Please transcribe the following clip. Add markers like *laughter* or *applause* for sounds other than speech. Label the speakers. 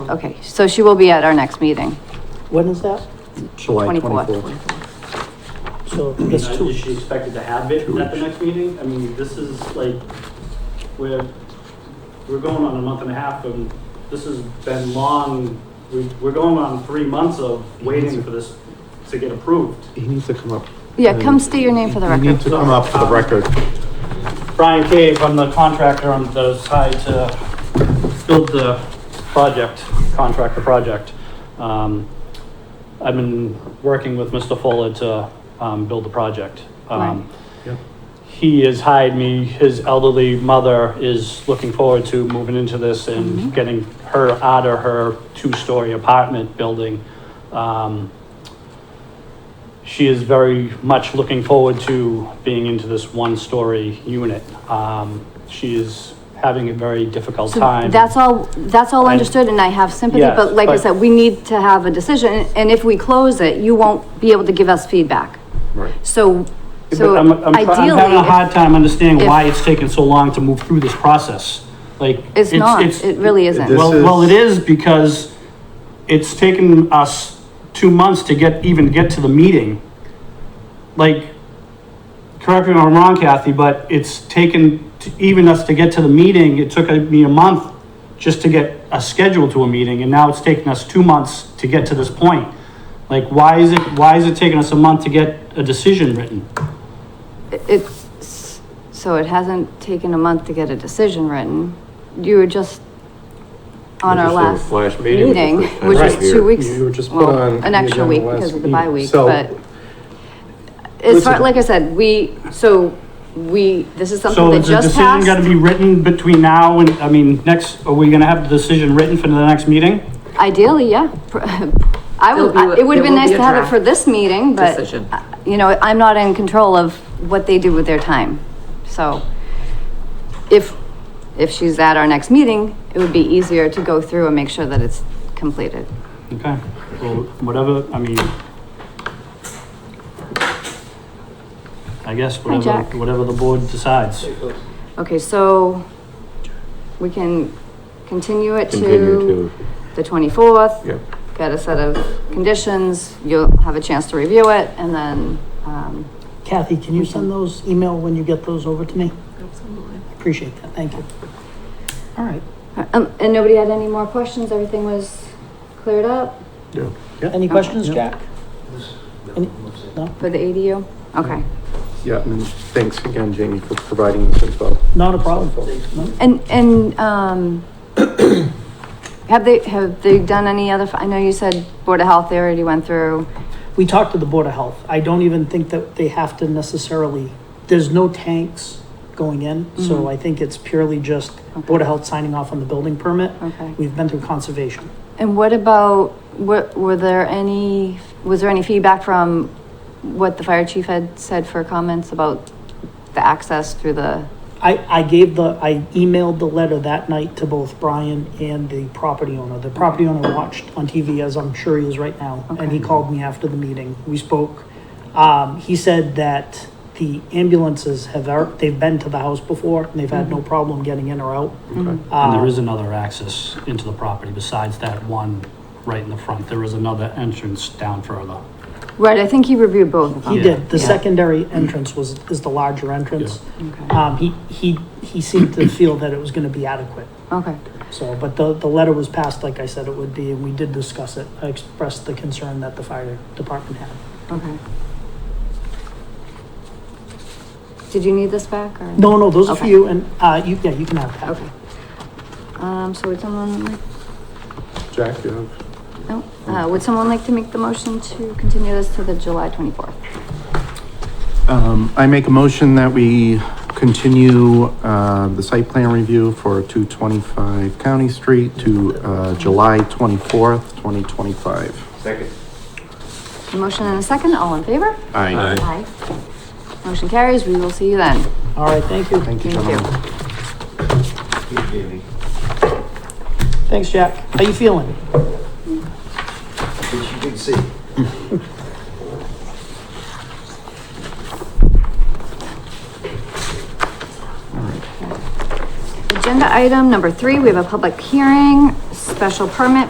Speaker 1: Okay, so she will be at our next meeting,
Speaker 2: When is that?
Speaker 3: July
Speaker 1: twenty-fourth.
Speaker 3: twenty-fourth.
Speaker 2: So
Speaker 4: I mean,
Speaker 2: that's
Speaker 4: Is she
Speaker 2: two.
Speaker 4: expected to have it
Speaker 3: Two
Speaker 4: at the
Speaker 3: weeks.
Speaker 4: next meeting? I mean, this is like, we're, we're going on a month and a half and this has been long. We, we're going on three months of waiting for this to get approved.
Speaker 3: He needs to come up.
Speaker 1: Yeah, come state your name for the
Speaker 3: You need
Speaker 1: record.
Speaker 3: to come up for the record.
Speaker 4: Brian Cave, I'm the contractor on the side to build the project, contract the project. Um, I've been working with Mr. Fuller to, um, build the project. Um,
Speaker 3: Yep.
Speaker 4: He has hired me, his elderly mother is looking forward to moving into this and getting her out of her two-story apartment building. Um, she is very much looking forward to being into this one-story unit. Um, she is having a very difficult
Speaker 1: So
Speaker 4: time.
Speaker 1: that's all, that's all
Speaker 4: I-
Speaker 1: understood and I have sympathy,
Speaker 4: Yes,
Speaker 1: but like I
Speaker 4: but-
Speaker 1: said, we need to have a decision and if we close it, you won't be able to give us feedback.
Speaker 3: Right.
Speaker 1: So,
Speaker 4: But
Speaker 1: so
Speaker 4: I'm, I'm, try- I'm having a
Speaker 1: ideally,
Speaker 4: hard time understanding
Speaker 1: if-
Speaker 4: why it's taken so long to move through this process. Like
Speaker 1: it's not,
Speaker 4: it's-
Speaker 1: it really isn't.
Speaker 3: This-
Speaker 4: Well, well,
Speaker 3: is-
Speaker 4: it is because it's taken us two months to get, even get to the meeting. Like, correct me if I'm wrong, Kathy, but it's taken, to- even us to get to the meeting, it took me a month just to get a schedule to a meeting, and now it's taken us two months to get to this point. Like, why is it, why is it taking us a month to get a decision written?
Speaker 1: It's, so it hasn't taken a month to get a decision written. You were just on our last
Speaker 5: Flash meeting.
Speaker 1: meeting,
Speaker 5: with the
Speaker 1: which was
Speaker 5: Right.
Speaker 1: two weeks.
Speaker 3: You were just put
Speaker 1: well,
Speaker 3: on
Speaker 1: An
Speaker 3: the
Speaker 1: extra
Speaker 3: agenda
Speaker 1: week
Speaker 3: last
Speaker 1: because of the
Speaker 3: week.
Speaker 1: bye week,
Speaker 3: So-
Speaker 1: but. As far,
Speaker 3: Listen.
Speaker 1: like I said, we, so we, this is something
Speaker 4: So
Speaker 1: that
Speaker 4: is the
Speaker 1: just
Speaker 4: decision gotta
Speaker 1: passed.
Speaker 4: be written between now and, I mean, next, are we gonna have the decision written for the next meeting?
Speaker 1: Ideally, yeah. *laughs* I would,
Speaker 2: There'll be a-
Speaker 1: it would have
Speaker 2: there
Speaker 1: been
Speaker 2: will
Speaker 1: nice
Speaker 2: be a
Speaker 1: to have it
Speaker 2: draft
Speaker 1: for this meeting, but.
Speaker 2: decision.
Speaker 1: uh, You know, I'm not in control of what they do with their time, so. If, if she's at our next meeting, it would be easier to go through and make sure that it's completed.
Speaker 4: Okay, well, whatever, I mean. I guess whatever,
Speaker 1: Jack.
Speaker 4: whatever the board decides.
Speaker 1: Okay, so we can continue it
Speaker 5: Continue
Speaker 1: to the twenty-fourth.
Speaker 5: Yep.
Speaker 1: Get a set of conditions, you'll have a chance to review it, and then, um,
Speaker 2: Kathy, can you send those email when you get those over to me? Absolutely. Appreciate that, thank you. All right,
Speaker 1: um, and nobody had any more questions, everything was cleared up
Speaker 2: any questions, Jack? Any- No,
Speaker 1: for the ADU? Okay,
Speaker 3: Yeah, and thanks again, Jamie, for providing this info.
Speaker 2: not a problem.
Speaker 1: and, and, um, *coughs* have they, have they done any other, I know you said Board of Health, they already went through.
Speaker 2: We talked to the Board of Health. I don't even think that they have to necessarily, there's no tanks going in. So I think it's purely just Board of Health signing off on the building permit.
Speaker 1: Okay.
Speaker 2: We've been through conservation.
Speaker 1: And what about, what, were there any, was there any feedback from what the fire chief had said for comments about the access through the,
Speaker 2: I, I gave the, I emailed the letter that night to both Brian and the property owner. The property owner watched on TV, as I'm sure he is right now, and he called me after the meeting. We spoke. Um, he said that the ambulances have, ar- they've been to the house before, and they've had no problem getting in or out.
Speaker 4: And
Speaker 2: Uh,
Speaker 4: there is another access into the property besides that one right in the front. There is another entrance down further.
Speaker 1: right, I think he reviewed both of them.
Speaker 2: He
Speaker 4: Yeah.
Speaker 2: did. The
Speaker 1: Yeah.
Speaker 2: secondary entrance was, is the larger entrance.
Speaker 1: Okay.
Speaker 2: Um, he, he, he seemed to feel that it was gonna be adequate.
Speaker 1: Okay,
Speaker 2: So, but the, the letter was passed, like I said it would be, and we did discuss it. I expressed the concern that the fire department had.
Speaker 1: okay. Did you need this back or?
Speaker 2: No, no, those are for
Speaker 1: Okay.
Speaker 2: you, and, uh, you, yeah, you can have that.
Speaker 1: Okay. Um, so would someone like,
Speaker 3: Jack, you have,
Speaker 1: no, uh, would someone like to make the motion to continue this to the July twenty-fourth?
Speaker 3: um, I make a motion that we continue, uh, the site plan review for two twenty-five County Street to, uh, July twenty-fourth, twenty twenty-five.
Speaker 5: Second.
Speaker 1: Motion and a second, all in favor?
Speaker 3: Aye.
Speaker 1: Aye. Motion carries, we will see you then.
Speaker 2: All right, thank you.
Speaker 3: Thank you,
Speaker 1: Thank you.
Speaker 3: gentlemen.
Speaker 2: Thanks, Jack. How you feeling?
Speaker 5: Which you can see.
Speaker 1: Agenda item number three, we have a public hearing, s- special permit